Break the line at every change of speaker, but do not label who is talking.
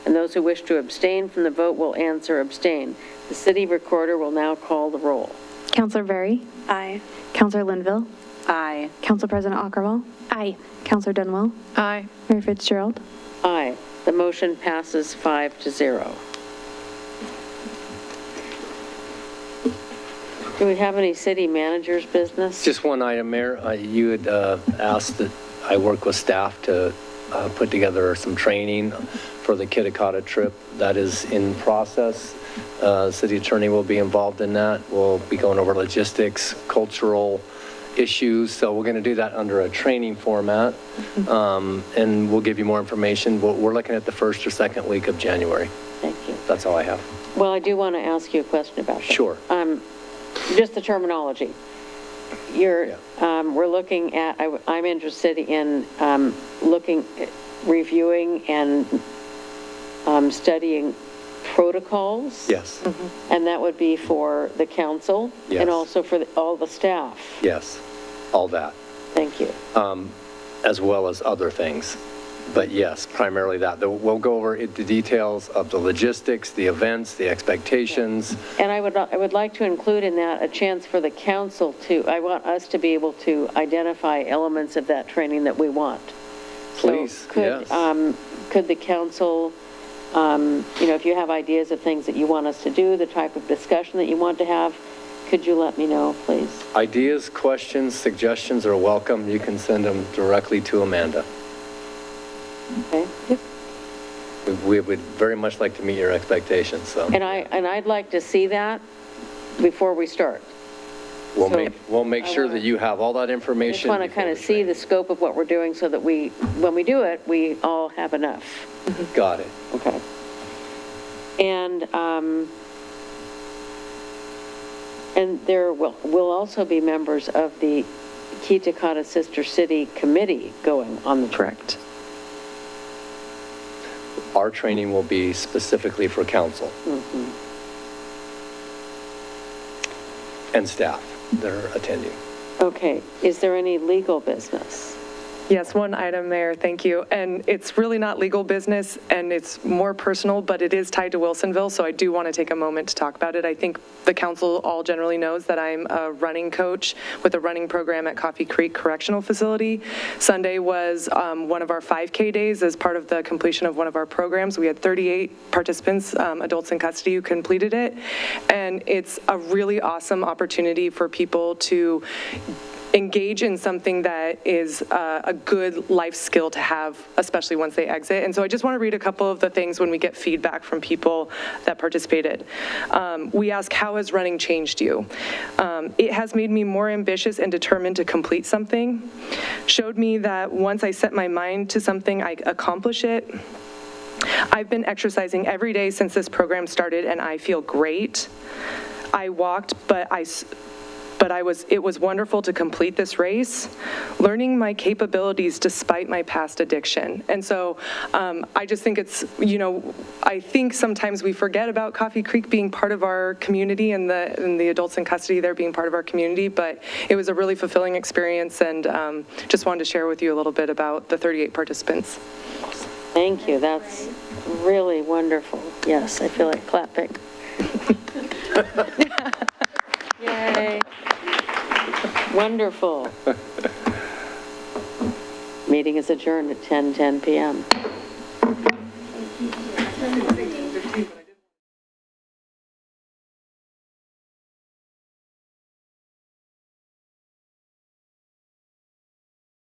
and those who wish to abstain from the vote will answer abstain. The city recorder will now call the roll.
Counselor Berry.
Aye.
Counselor Linville.
Aye.
Council President Aukerville. Aye. Counselor Dunwell.
Aye.
Mayor Fitzgerald.
Aye. The motion passes five to zero. Do we have any city managers' business?
Just one item, Mayor. Uh, You had uh, asked that I work with staff to uh, put together some training for the Kitakata trip. That is in process. Uh, City attorney will be involved in that. We'll be going over logistics, cultural issues, so we're going to do that under a training format, Um, and we'll give you more information. We're we're looking at the first or second week of January.
Thank you.
That's all I have.
Well, I do want to ask you a question about that.
Sure.
Um, Just the terminology. You're, um, we're looking at, I w- I'm interested in um, looking, reviewing and um, studying protocols.
Yes,
And that would be for the council?
Yes.
And also for the- all the staff?
yes, all that.
Thank you.
as well as other things. But yes, primarily that. Though We'll go over it- the details of the logistics, the events, the expectations.
And I would, I would like to include in that a chance for the council to, I want us to be able to identify elements of that training that we want. So
Please,
could,
yes.
um, Could the council, um, you know, if you have ideas of things that you want us to do, the type of discussion that you want to have, could you let me know, please?
Ideas, questions, suggestions are welcome. You can send them directly to Amanda.
Okay?
We- We would very much like to meet your expectations, so
And I, and I'd like to see that before we start.
we'll
so
make, we'll make sure that you have all that
I just
information.
want to
before
kind of
the
see the
training.
scope of what we're doing so that we, when we do it, we all have enough.
Got it.
Okay. And, um, and there will, will also be members of the Kitakata Sister City Committee going on the trip.
Correct.
Our training will be specifically for council.
Mm-hmm.
And staff that are attending.
Okay, is there any legal business?
Yes, one item, Mayor, thank you. And it's really not legal business, and it's more personal, but it is tied to Wilsonville, so I do want to take a moment to talk about it. I think the council all generally knows that I'm a running coach with a running program at Coffee Creek Correctional Facility. Sunday was um, one of our 5K days as part of the completion of one of our programs. We had 38 participants, um, adults in custody, who completed it, and it's a really awesome opportunity for people to engage in something that is uh, a good life skill to have, especially once they exit. And so I just want to read a couple of the things when we get feedback from people that participated. Um, We ask, how has running changed you? Um, It has made me more ambitious and determined to complete something, showed me that once I set my mind to something, I accomplish it. I've been exercising every day since this program started, and I feel great. I walked, but I, s- but I was, it was wonderful to complete this race, learning my capabilities despite my past addiction. And so um, I just think it's, you know, I think sometimes we forget about Coffee Creek being part of our community and the, and the adults in custody there being part of our community, but it was a really fulfilling experience, and um, just wanted to share with you a little bit about the 38 participants.
Thank you, that's really wonderful. Yes, I feel like clapping. Yay. Wonderful. Meeting is adjourned at 10:10 PM.